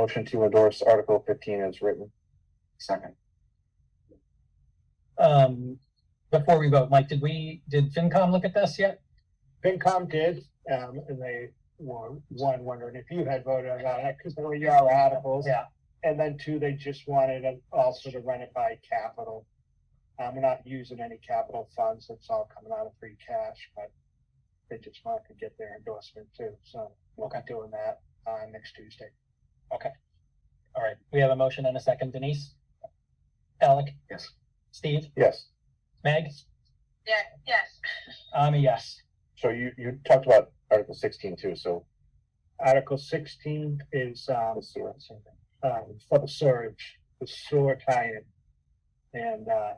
Motion to endorse Article fifteen as written. Second. Um, before we vote, Mike, did we, did FinCom look at this yet? FinCom did, um, and they were, one, wondering if you had voted on it, because there were your articles. Yeah. And then two, they just wanted to also to run it by capital. Um, we're not using any capital funds, it's all coming out of free cash, but they just wanted to get their endorsement too, so we'll be doing that, uh, next Tuesday. All right, we have a motion and a second. Denise? Alec? Yes. Steve? Yes. Meg? Yeah, yes, I'm a yes. So you, you talked about Article sixteen too, so Article sixteen is, um, let's see what- um, for the surge, the sewer tie-in. And, uh,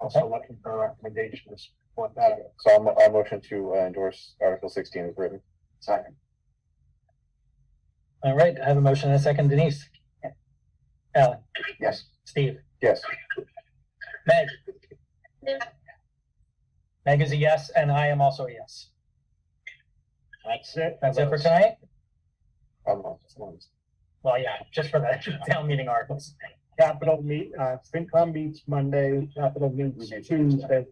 also looking for recommendations for that. So I'll, mo- I'll motion to uh, endorse Article sixteen as written. Second. All right, I have a motion and a second. Denise? Alec? Yes. Steve? Yes. Meg? Yeah. Meg is a yes, and I am also a yes. That's it. That's it for tonight? I'm on. it's on. Well, yeah, just for the town meeting articles. Capital meet, uh, FinCom meets Monday, capital meets Tuesday.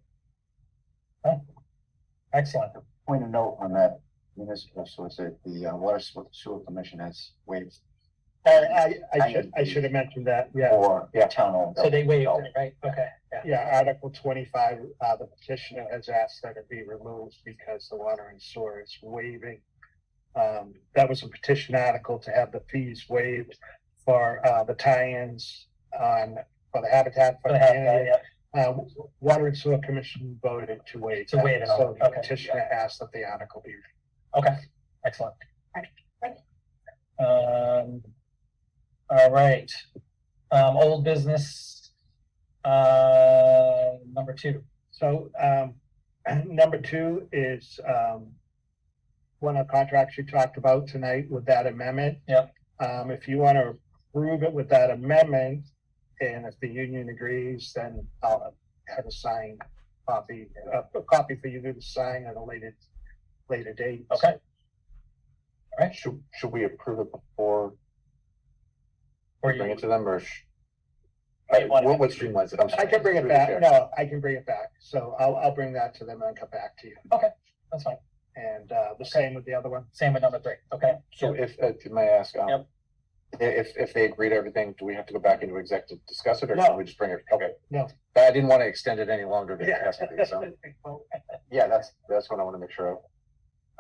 Excellent. Point of note on that municipal, so it's a- the uh, water sewer- sewer commission has waived I, Uh, I, I should, I should have mentioned that, yeah. for Yeah. town owned. So they waived it, right? Okay, yeah. Yeah, Article twenty-five, uh, the petitioner has asked that it be removed because the water and sewer is waiving. Um, that was a petition article to have the fees waived for, uh, the tie-ins on, for the Habitat for For the half, yeah, Humanity. yeah. Uh, Water and Sewer Commission voted to waive. To that, waive it all, So the okay. petitioner asked that the article be Okay, excellent. Right, right. Um, all right, um, old business, uh, number two. So, um, number two is, um, one of the contracts you talked about tonight with that amendment. Yep. Um, if you want to approve it with that amendment, and if the union agrees, then I'll have a signed copy, a, a copy for you to sign at a later, later date. Okay, Should, should we approve it before or we bring you, it to them or? sh- Might wanna- What, what streamlines it? I'm I sorry. can bring it Through the back, chair. no, I can bring it back, so I'll, I'll bring that to them and come back to you, that's fine, and, uh, the same with the other one. same with number three, okay? So if, uh, may I ask, um, Yep. i- if, if they agree to everything, do we have to go back into exec to discuss it or No. can we just bring it? Okay. No. But I didn't want to extend it any longer than it has to be, so, yeah, that's, that's what I want to make sure of.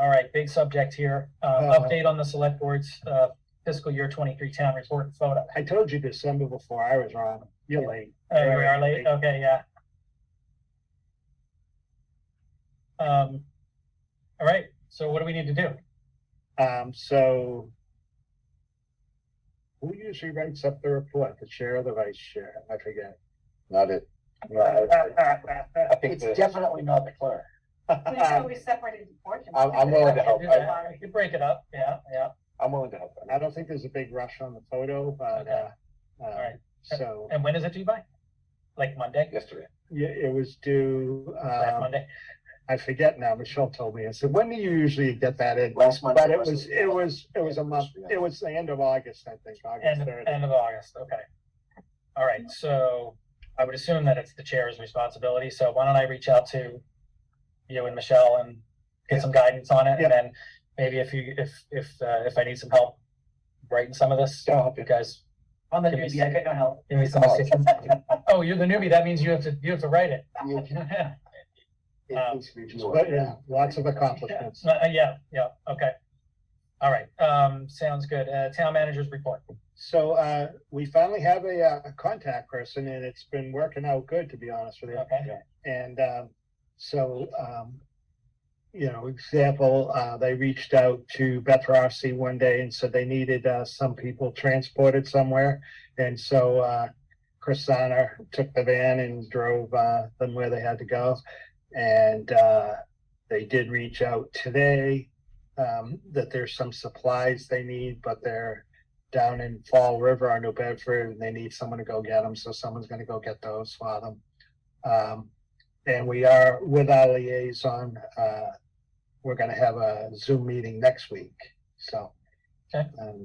All right, big subject here, uh, Uh-huh. update on the select board's, uh, fiscal year twenty-three town report and photo. I told you December before, I was wrong, you're late. Oh, we are late, okay, yeah. Um, all right, so what do we need to do? Um, so. Who usually writes up the report, the chair or the vice chair? I forget. Not it. No, I- I think It's the, definitely not the clerk. we didn't know we separated the portions. I'm, I'm willing to help. We I, could break it up, yeah, yeah. I'm willing to help. I don't think there's a big rush on the photo, but, uh, Okay. uh, right. so, And when is it due by? Like Monday? Yesterday. yeah, it was due, Last um, Monday? I forget now, Michelle told me, I said, when do you usually get that in? Last month. But it was, it was, it was a month, it was the end of August, I think, August End, third. end of August, okay. All right, so I would assume that it's the chair's responsibility, so why don't I reach out to you and Michelle and get some guidance on it? Yeah. And then maybe if you, if, if, uh, if I need some help writing some of this, I'll help you guys I'm the Give me newbie, I got no help. Give me some Oh. assistance. Oh, you're the newbie. That means you have to, you have to write it. It- Yeah, it needs to be But reviewed. yeah, lots of accomplishments. Uh, yeah, yeah, okay. All right, um, sounds good. Uh, town manager's report. So uh, we finally have a, uh, a contact person, and it's been working out good, to be honest with you. Okay. And um, so, um, you know, example, uh, they reached out to Beth Rossi one day and said they needed uh, some people transported somewhere, and so uh, Chris Sonner took the van and drove uh, them where they had to go, and uh, they did reach out today um, that there's some supplies they need, but they're down in Fall River or New Bedford, and they need someone to go get them, so someone's going to go get those for them. Um, and we are with our liaison, uh, we're gonna have a Zoom meeting next week, so. Okay. Um,